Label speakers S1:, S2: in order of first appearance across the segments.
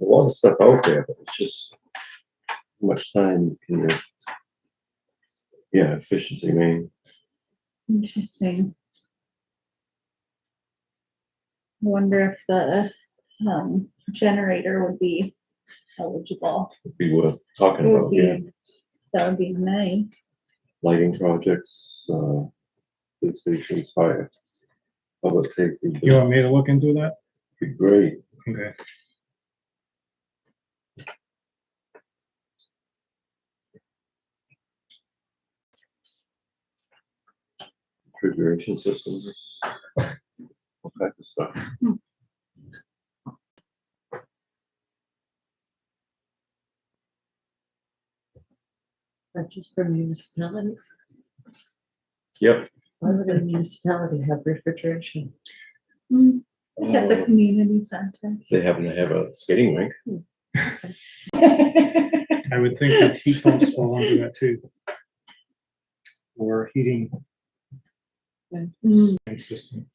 S1: There's a lot of stuff out there, but it's just how much time can you? Yeah, efficiency, I mean,
S2: Interesting. I Wonder if the, um, generator would be eligible.
S1: would be worth talking
S2: Would
S1: about, yeah,
S2: be, that would be nice.
S1: lighting projects, uh, food stations, fire. Public safety
S3: You
S1: would
S3: want me to look into that?
S1: be great,
S3: Okay.
S1: refrigeration systems. All kinds of stuff.
S4: Purchase for municipalities.
S1: Yep.
S4: Why would a municipality have refrigeration?
S2: Mm, Look at the
S1: Uh,
S2: community center.
S1: If they happen to have a skating rink,
S3: I would think that heat pumps fall under that too. Or heating
S4: Mm-hmm.
S2: Mm,
S3: system.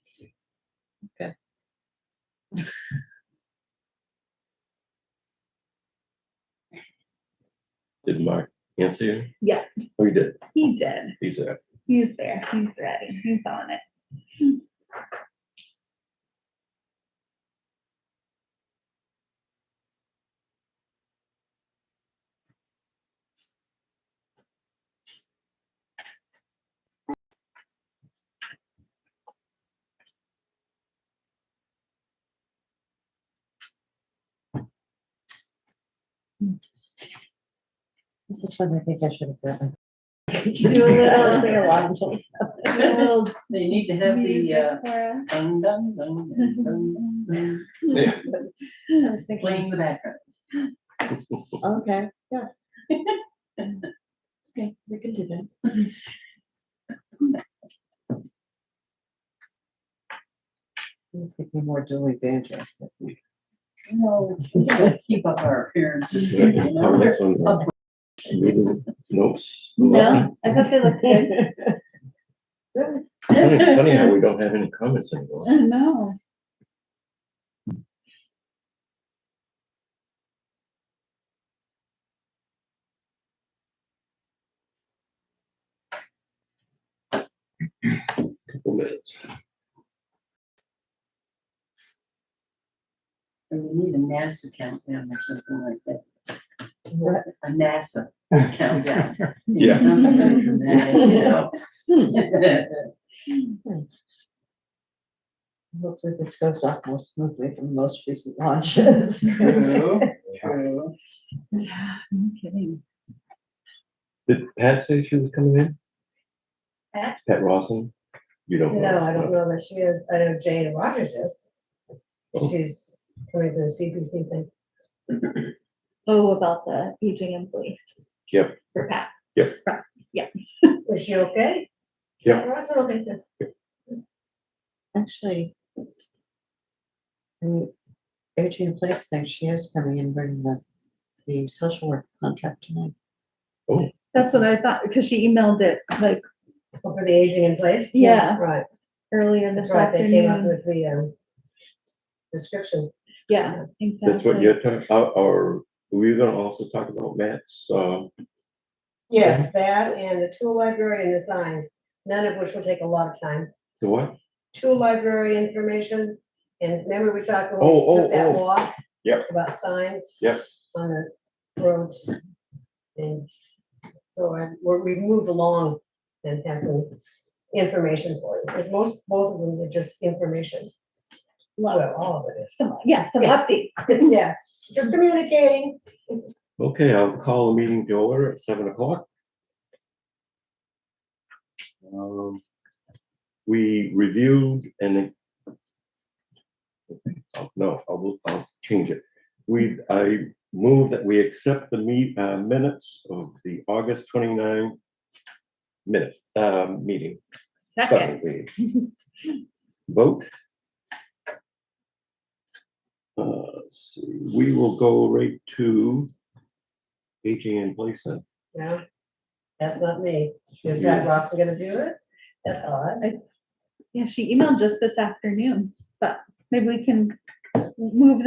S1: did Mark answer you?
S2: Yeah.
S1: Oh, he did,
S2: He did.
S1: he's there.
S2: He's there. He's ready. He's on it.
S4: This is when I think I should have gotten.
S2: Do a little-
S5: They need to have the,
S2: music
S5: uh,
S2: for
S5: dun, dun, dun, dun, dun, dun,
S1: Yeah.
S4: I was thinking,
S5: playing the background.
S4: okay, yeah. Okay, we can do that. I was thinking more Julie Van Jess, but
S5: No, we gotta Keep up our appearances. you know?
S1: Comments on the meeting notes?
S2: No, I thought they looked good.
S1: Funny funny how we don't have any comments anymore.
S2: I know.
S1: Couple minutes.
S5: And we need a NASA countdown or something like that.
S4: What?
S5: A NASA countdown.
S1: Yeah.
S5: Something very dramatic, you know?
S4: hopefully this goes off more smoothly from most recent launches.
S5: True, true.
S2: Yeah, no kidding.
S1: Did Pat say she was coming in?
S6: Pat?
S1: Pat Roslin? You don't know?
S6: No, I don't know that she is. I know Jane Rogers is. She's coming to the CPC thing.
S2: Oh, about the aging in place.
S1: Yep.
S2: For Pat.
S1: Yep.
S2: Right, Yeah.
S6: Is she okay?
S1: Yeah.
S6: Ross, I don't think that-
S4: Actually. The aging in place thing, she is coming in bringing the, the social work contract tonight.
S2: That's what I thought, because she emailed it like
S6: oh, For the aging in place?
S2: Yeah.
S6: Right,
S2: earlier this
S6: that's right. They came up
S2: afternoon.
S6: with the, um, description.
S2: Yeah, exactly.
S1: That's what you're talking, or, or were you gonna also talk about Matt's, uh,
S6: Yes, that and the tool library and the signs, none of which will take a lot of time.
S1: the what?
S6: Tool library information, and remember we talked when
S1: Oh,
S6: we
S1: oh,
S6: took that
S1: oh.
S6: walk?
S1: Yep.
S6: About signs?
S1: Yep.
S6: On the roads. And so I, we're, we've moved along and have some information for you. But most, both of them are just information.
S2: Love.
S6: Well, all of it is.
S2: Some, yeah, some
S6: Yeah.
S2: updates.
S6: Yeah, just communicating.
S1: Okay, I'll call the meeting to order at seven o'clock. Um, We reviewed and Oh, no, I will, I'll change it. We, I move that we accept the meet, uh, minutes of the August twenty-nine minute, uh, meeting. Second
S2: Second.
S1: reading. Vote. Uh, let's see, we will go right to aging in place then.
S6: No, that's not me. Is Brad Roth gonna do it? That's odd.
S2: Yeah, she emailed just this afternoon, but maybe we can move